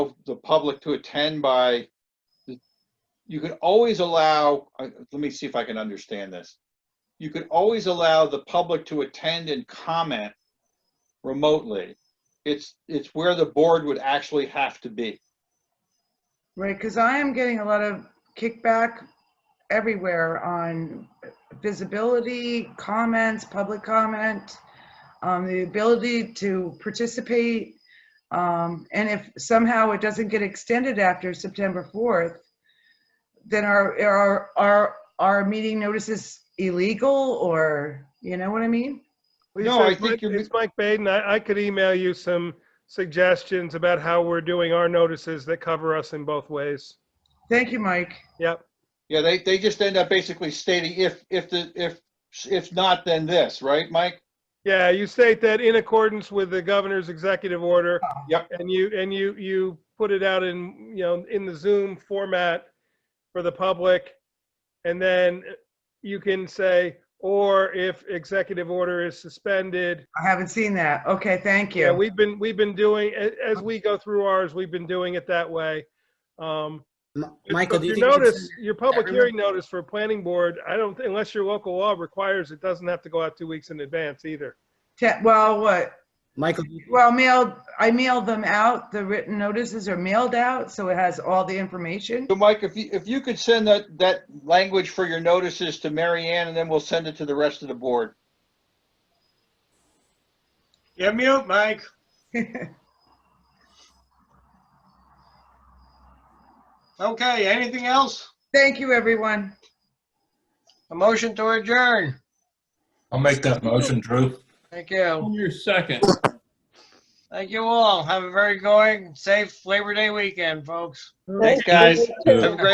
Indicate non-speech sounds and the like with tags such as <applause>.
the public to attend by, you could always allow, uh, let me see if I can understand this. You could always allow the public to attend and comment remotely. It's, it's where the board would actually have to be. Right, because I am getting a lot of kickback everywhere on visibility, comments, public comment, um, the ability to participate. Um, and if somehow it doesn't get extended after September 4th, then our, our, our, our meeting notice is illegal or, you know what I mean? No, Lisa, I it's think Mike- you're- It's Mike Baden. I, I could email you some suggestions about how we're doing our notices that cover us in both ways. Thank you, Mike. Yep. Yeah, they, they just end up basically stating if, if the, if, if not, then this, right, Mike? Yeah, you state that in accordance with the governor's executive order. Yep. And you, and you, you put it out in, you know, in the Zoom format for the public. And then you can say, or if executive order is suspended. I haven't seen that. Okay, thank you. Yeah, we've been, we've been doing, a- as we go through ours, we've been doing it that way. Um, M- If- Michael, if do you think? we could notice, send- your public everyone- hearing notice for a planning board, I don't, thi- unless your local law requires, it doesn't have to go out two weeks in advance either. Te- Well, what, Michael, do you- Well, mailed, I mailed them out, the written notices are mailed out, so it has all the information. So Mike, if you, if you could send that, that language for your notices to Mary Ann and then we'll send it to the rest of the board. You're mute, <laughs> Mike. Okay, anything else? Thank you, everyone. A motion to adjourn. I'll make that motion, Drew. Thank you. Your second. Thank you all. Have a very going, safe Labor Day weekend, folks. Thanks, guys. Have a great